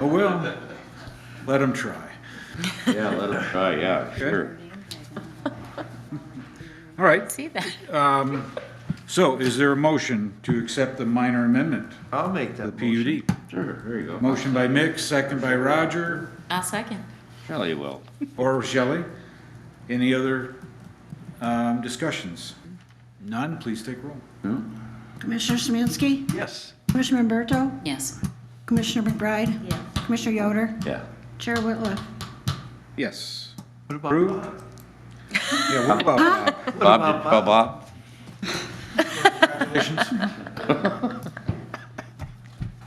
Oh, well, let them try. Yeah, let them try, yeah, sure. All right, See that? so is there a motion to accept the minor amendment, I'll make that PUD? Sure, there you go. Motion by Mick, second by Roger, I'll second. Shelley will. or Shelley. Any other um, discussions? None, please take roll. Commissioner Smansky? Yes. Commissioner Humberto? Yes. Commissioner McBride? Commissioner Yoder? Yeah. Chair Whitliff? Yes. What about Yeah, what about Bob? Bob, did- Bob, Bob?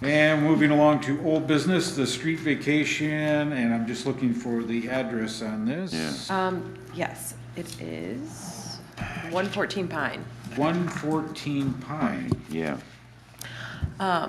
And moving along to old business, the street vacation, and I'm just looking for the address on this. Um, yes, it is one fourteen Pine. One fourteen Pine. Yeah. Yeah,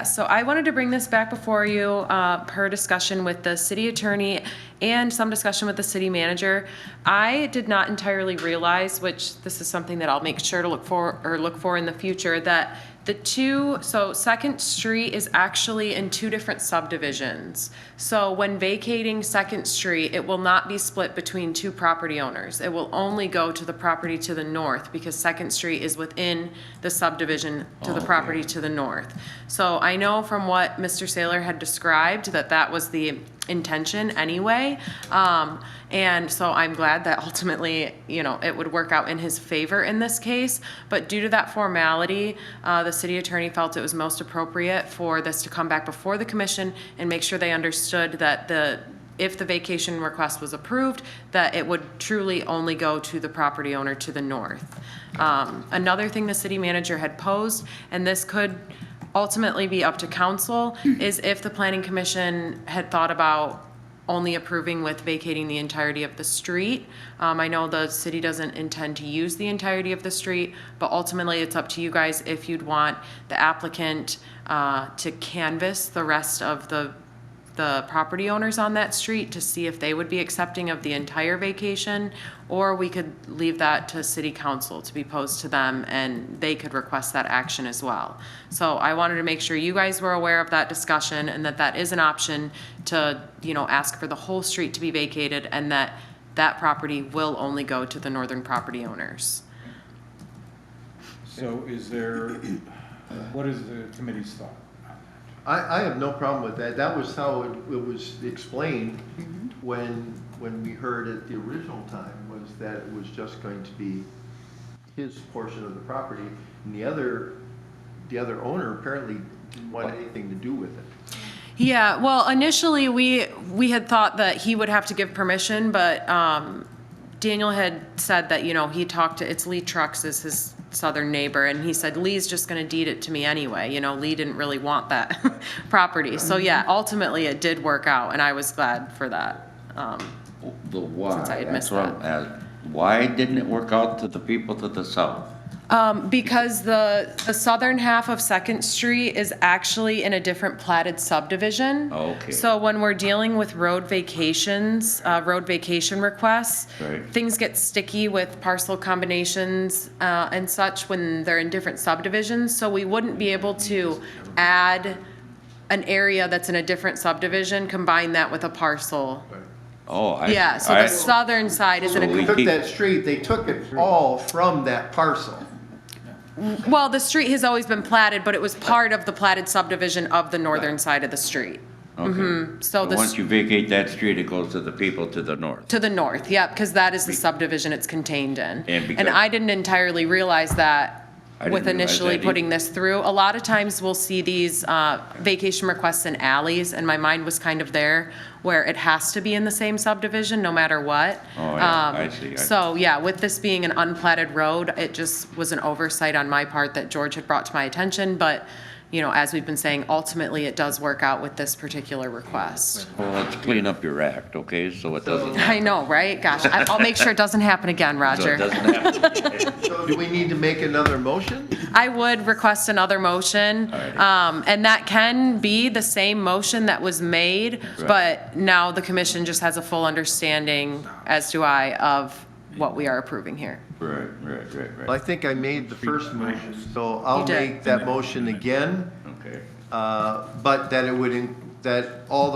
Um, so I wanted to bring this back before you, uh, per discussion with the city attorney and some discussion with the city manager. I did not entirely realize, which this is something that I'll make sure to look for, or look for in the future, that the two, so Second Street is actually in two different subdivisions. So when vacating Second Street, it will not be split between two property owners. It will only go to the property to the north, because Second Street is within the subdivision to the property to the north. So I know from what Mr. Saylor had described that that was the intention anyway. Um, and so I'm glad that ultimately, you know, it would work out in his favor in this case. But due to that formality, uh, the city attorney felt it was most appropriate for this to come back before the commission and make sure they understood that the, if the vacation request was approved, that it would truly only go to the property owner to the north. Um, another thing the city manager had posed, and this could ultimately be up to council, is if the planning commission had thought about only approving with vacating the entirety of the street. Um, I know the city doesn't intend to use the entirety of the street, but ultimately it's up to you guys if you'd want the applicant, uh, to canvass the rest of the the property owners on that street to see if they would be accepting of the entire vacation, or we could leave that to city council to be posed to them, and they could request that action as well. So I wanted to make sure you guys were aware of that discussion, and that that is an option to, you know, ask for the whole street to be vacated, and that that property will only go to the northern property owners. So is there, what is the committee's thought? I, I have no problem with that. That was how it, it was explained Mm-hmm. when, when we heard it the original time, was that it was just going to be his portion of the property, and the other, the other owner apparently didn't want anything to do with it. Yeah, well, initially, we, we had thought that he would have to give permission, but um, Daniel had said that, you know, he talked to, it's Lee Trucks is his southern neighbor, and he said, Lee's just gonna deed it to me anyway, you know, Lee didn't really want that property. So yeah, ultimately, it did work out, and I was glad for that. Um, The why. Since I had that's missed what I'm ask- Why didn't it work out to the people to the south? Um, because the, the southern half of Second Street is actually in a different platted subdivision. Oh, Okay. So when we're dealing with road vacations, uh, road vacation requests, Right. things get sticky with parcel combinations, uh, and such when they're in different subdivisions, so we wouldn't be able to add an area that's in a different subdivision, combine that with a parcel. Oh, I. Yeah, so I- the southern side is in a So we- They Took that street, they took it all from that parcel. Well, the street has always been platted, but it was part of the platted subdivision of the northern side of the street. Okay. mm-hmm. So But Once this, you vacate that street, it goes to the people to the north. to the north, yep, because that is the subdivision it's contained in. And because- And I didn't entirely realize that I didn't realize with that initially either. putting this through. A lot of times we'll see these uh, vacation requests in alleys, and my mind was kind of there where it has to be in the same subdivision, no matter what. Oh, yeah, Um, I see, I- So, yeah, with this being an unplatted road, it just was an oversight on my part that George had brought to my attention, but, you know, as we've been saying, ultimately, it does work out with this particular request. Well, let's clean up your act, okay, so it doesn't. I know, right? Gosh, I- I'll make sure it doesn't happen again, So it Roger. doesn't happen. So do we need to make another motion? I would request another motion, Alrighty. um, and that can be the same motion that was made, Right. but now the commission just has a full understanding, as do I, of what we are approving here. Right, right, right, Well, I right. think I made the first motion, so I'll You did. make that motion again. Okay. Uh, but that it would in- that all the